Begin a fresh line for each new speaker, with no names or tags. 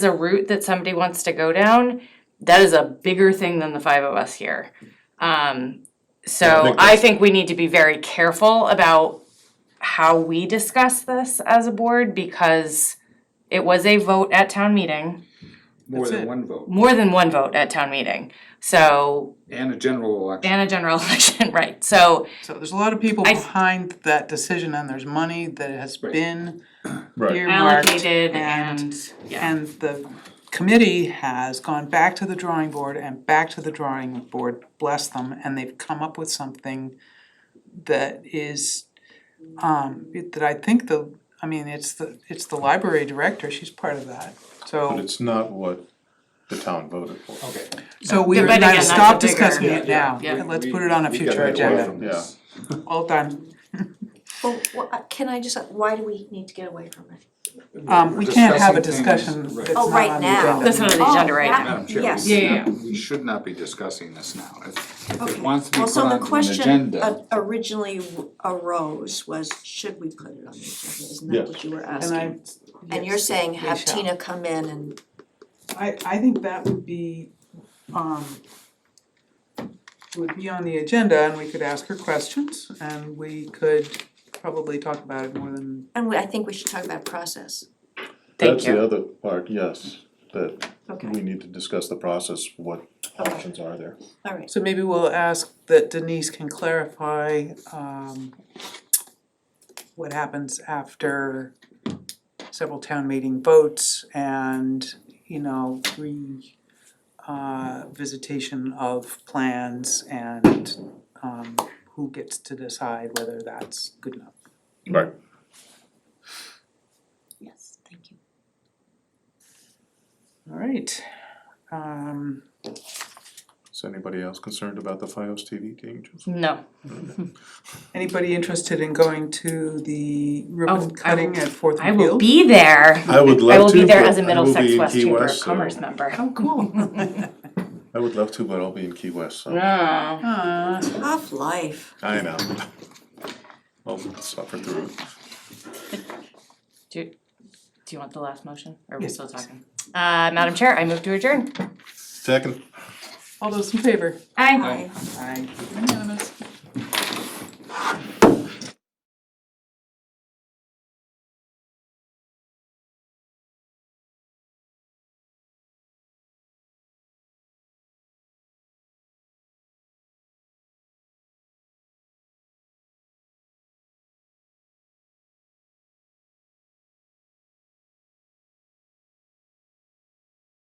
a route that somebody wants to go down, that is a bigger thing than the five of us here. Um,
I
so
think
I
that's-
think we need to be very careful about how we discuss this as a board because it was a vote at town meeting,
More
That's
than
it.
one vote,
more than one vote at town meeting. So,
and a general election.
and a general election, right, so
So there's a lot of people
I-
behind that decision and there's money that has
Right.
been
Right.
earmarked.
allocated
and-
and, yeah,
And the committee has gone back to the drawing board and back to the drawing board, bless them, and they've come up with something that is, um, it- that I think the, I mean, it's the, it's the library director, she's part of that.
But
So,
it's not what the town voted for.
Oh,
Okay.
so we
But
are going
again,
to
that's a
stop
bigger-
discussing it
Yeah,
now,
yeah.
and let's
We-
put it on a
we
future
gotta get away
agenda,
from this.
all done.
Well, wha- uh, can I just, why do we need to get away from it?
Um, we can't have a
Discussing things-
discussion that's not
Oh,
on the
right
agenda.
now.
that's not on the
Oh,
agenda right
that-
now.
Madam Chair, we
Yes.
Yeah,
should
yeah,
not, we should not be discussing this now. If, if it
Okay.
wants to be
Well,
put
so the
on an
question
agenda,
o- originally w- arose was, should we put it on the agenda, isn't
Yeah.
that what you were
And I,
asking? And you're saying have
shall.
Tina come in and,
I, I think that would be, um, would be on the agenda and we could ask her questions and we could probably talk about it more than,
and we- I think we should talk about process.
Thank
That's the
you.
other part, yes, that
Mm-hmm.
Okay,
we need to discuss the process, what options are there.
all right,
so maybe we'll ask that Denise can clarify, um, what happens after several town meeting votes and, you know, re, uh, visitation of plans and, um, who gets to decide whether that's good enough.
Right.
yes, thank you.
All right, um,
Is anybody else concerned about the FiOS TV changes?
No,
anybody interested in going to
Oh,
the
I
ribbon
will-
cutting at Fourth
I
and
will
Field?
be there.
I would
I
love
will
to,
be there
but
as a
I will be
Middlesex
in
West
Key
Chamber of
West, so-
Commerce member.
Oh, cool.
I would love to, but I'll be in Key West, so,
Ah.
Uh,
Tough life,
I know. I'll suffer through it.
Do you want the last motion? Or are we
Yes,
still talking? Uh, Madam Chair, I move to adjourn.
Second,
all those in favor?
Aye.
Aye.
Aye. Unanimous.